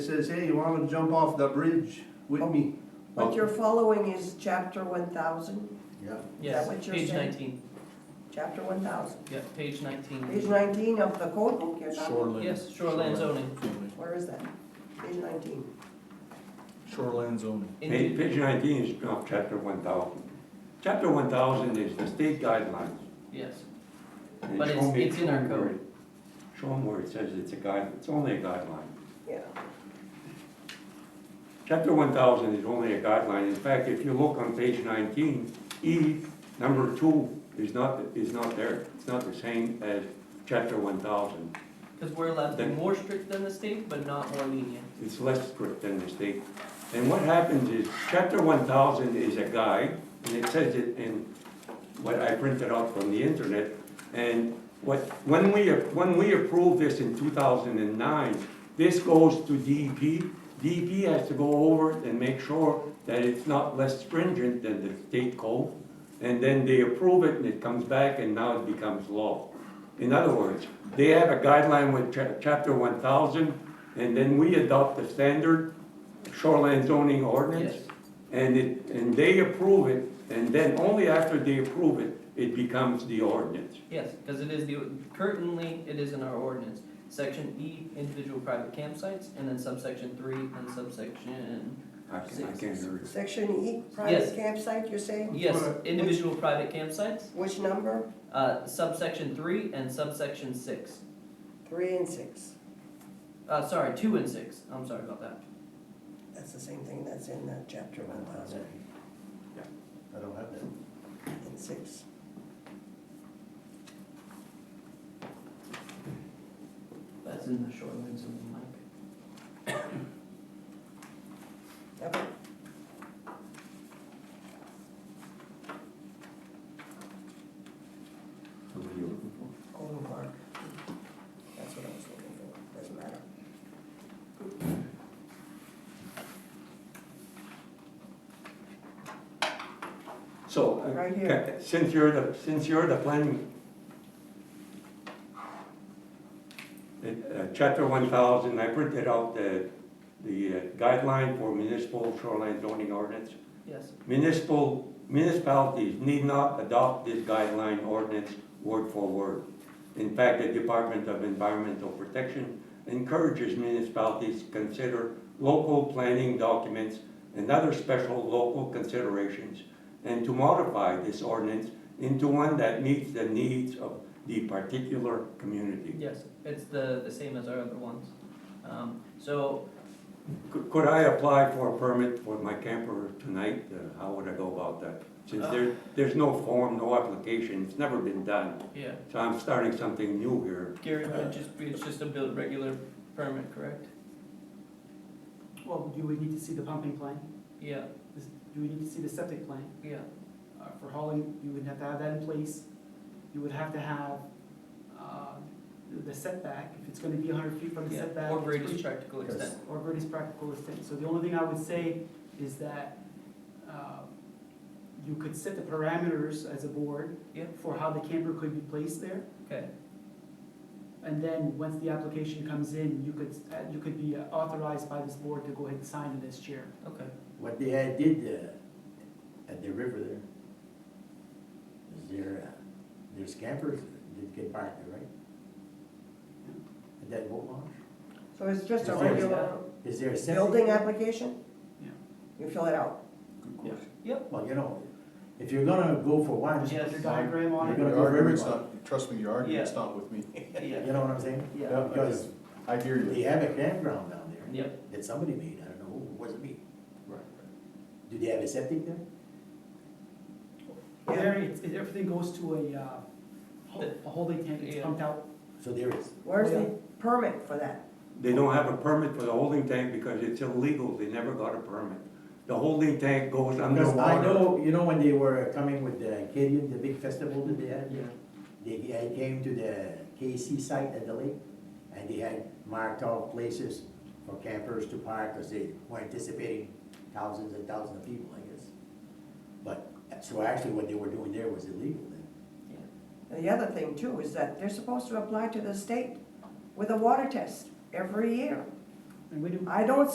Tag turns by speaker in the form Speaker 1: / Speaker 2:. Speaker 1: says, hey, you wanna jump off the bridge with me?
Speaker 2: Oh.
Speaker 3: What you're following is chapter one thousand,
Speaker 1: Yeah.
Speaker 3: that
Speaker 4: Yes,
Speaker 3: what you're
Speaker 4: page
Speaker 3: saying?
Speaker 4: nineteen,
Speaker 3: chapter one thousand,
Speaker 4: yeah, page
Speaker 3: page
Speaker 4: nineteen.
Speaker 3: nineteen of the code book you're talking?
Speaker 5: Shoreland.
Speaker 4: Yes, shoreline zoning.
Speaker 3: Where is that? Page nineteen.
Speaker 5: Shoreland zoning.
Speaker 2: Page,
Speaker 4: Indeed,
Speaker 2: page nineteen is, of chapter one thousand. Chapter one thousand is the state guidelines.
Speaker 4: yes.
Speaker 2: And
Speaker 4: But
Speaker 2: show
Speaker 4: it's-
Speaker 2: me-
Speaker 4: it's in our
Speaker 2: show me where
Speaker 4: code.
Speaker 2: it- Show them where it says it's a guide, it's only a guideline.
Speaker 3: Yeah.
Speaker 2: Chapter one thousand is only a guideline. In fact, if you look on page nineteen, E, number two, is not, is not there. It's not the same as chapter one thousand.
Speaker 4: Because we're allowed to be
Speaker 2: Then-
Speaker 4: more strict than the state, but not more lenient.
Speaker 2: It's less strict than the state. And what happens is, chapter one thousand is a guide, and it says it in what I printed out from the internet. And what, when we, when we approved this in two thousand and nine, this goes to E DEP. DEP has to go over it and make sure that it's not less stringent than the state code. And then they approve it and it comes back and now it becomes law. In other words, they have a guideline with cha- chapter one thousand, and then we adopt the standard shoreline zoning ordinance.
Speaker 4: Yes.
Speaker 2: And it, and they approve it, and then only after they approve it, it becomes the ordinance.
Speaker 4: Yes, because it is the, currently, it is in our ordinance. Section E, individual private campsites, and then subsection three and subsection,
Speaker 2: I can, I can't hear it.
Speaker 3: Section E,
Speaker 4: Yes.
Speaker 3: private campsite, you're saying?
Speaker 4: yes, individual private campsites,
Speaker 3: Which number?
Speaker 4: uh, subsection three and subsection six.
Speaker 3: Three and six.
Speaker 4: Uh, sorry, two and six, I'm sorry about that.
Speaker 3: That's the same thing that's in the chapter one thousand
Speaker 5: I don't have that.
Speaker 3: and six.
Speaker 4: That's in the shoreline zoning, Mike.
Speaker 3: Okay.
Speaker 2: What are you looking for?
Speaker 3: Golden Park. That's what I was looking for, doesn't matter.
Speaker 2: So, uh,
Speaker 3: Right here.
Speaker 2: ca- since you're the, since you're the planning. It, uh, chapter one thousand, I printed out the, the uh, guideline for municipal shoreline zoning ordinance.
Speaker 4: Yes,
Speaker 2: Municipal, municipalities need not adopt this guideline ordinance word for word. In fact, the Department of Environmental Protection encourages municipalities to consider local planning documents and other special local considerations and to modify this ordinance into one that meets the needs of the particular community.
Speaker 4: yes, it's the, the same as our other ones. Um, so
Speaker 2: Could could I apply for a permit for my camper tonight? Uh, How would I go about that? Since there, there's no form, no application, it's never been done.
Speaker 4: Yeah,
Speaker 2: So I'm starting something new here.
Speaker 4: Gary, it would just be, it's just a build, regular permit, correct?
Speaker 6: Well, do we need to see the pumping plan?
Speaker 4: Yeah,
Speaker 6: This- Do we need to see the septic plan?
Speaker 4: yeah,
Speaker 6: Uh, For hauling, you would have to have that in place. You would have to have uh, the setback, if it's gonna be hundred feet from the
Speaker 4: yeah,
Speaker 6: setback.
Speaker 4: or
Speaker 6: it's
Speaker 4: greatest
Speaker 6: pretty-
Speaker 4: practical extent.
Speaker 6: Or greatest practical extent. So the only thing I would say is that uh, you could set the parameters as a board
Speaker 4: Yeah.
Speaker 6: for how the camper could be placed there.
Speaker 4: Okay,
Speaker 6: And then, once the application comes in, you could, uh, you could be authorized by this board to go ahead and sign it as chair.
Speaker 4: okay,
Speaker 5: What they had did uh, at the river there, is there, uh, there's campers that get parked there, right? At that boat launch?
Speaker 3: So it's just a
Speaker 5: Is there-
Speaker 3: regular
Speaker 5: Is there a septic?
Speaker 3: building application?
Speaker 6: Yeah.
Speaker 3: You fill it out.
Speaker 5: Well, you know, if you're gonna go for one,
Speaker 4: Yeah.
Speaker 5: you
Speaker 6: Put your diagram on
Speaker 5: You're
Speaker 6: it.
Speaker 5: gonna
Speaker 7: Your
Speaker 5: go very
Speaker 7: argument's
Speaker 5: far.
Speaker 7: not, trust me, your argument's not with me.
Speaker 4: yeah,
Speaker 5: know what I'm saying?
Speaker 4: Yeah.
Speaker 5: Because
Speaker 7: I hear
Speaker 5: they
Speaker 7: you.
Speaker 5: have a campground down there
Speaker 4: yep,
Speaker 5: that somebody made, I don't know who, it wasn't me.
Speaker 7: Right.
Speaker 5: Do they have a septic there?
Speaker 3: Yeah.
Speaker 6: There, it's, it- everything goes to a, uh, ho-
Speaker 4: The-
Speaker 6: a holding tank, it's
Speaker 4: yeah.
Speaker 6: pumped out.
Speaker 5: So there is.
Speaker 3: Where's the permit for that?
Speaker 2: They don't have a permit for the holding tank because it's illegal. They never got a permit. The holding tank goes
Speaker 5: Because I
Speaker 2: underwater.
Speaker 5: know, you know, when they were coming with the Acadian, the big festival that they had?
Speaker 4: yeah,
Speaker 5: They, I came to the KC site at the lake, and they had marked out places for campers to park, because they were anticipating thousands and thousands of people, I guess. But, so actually what they were doing there was illegal then.
Speaker 3: And the other thing too is that they're supposed to apply to the state with a water test every year.
Speaker 6: and we do.
Speaker 3: I don't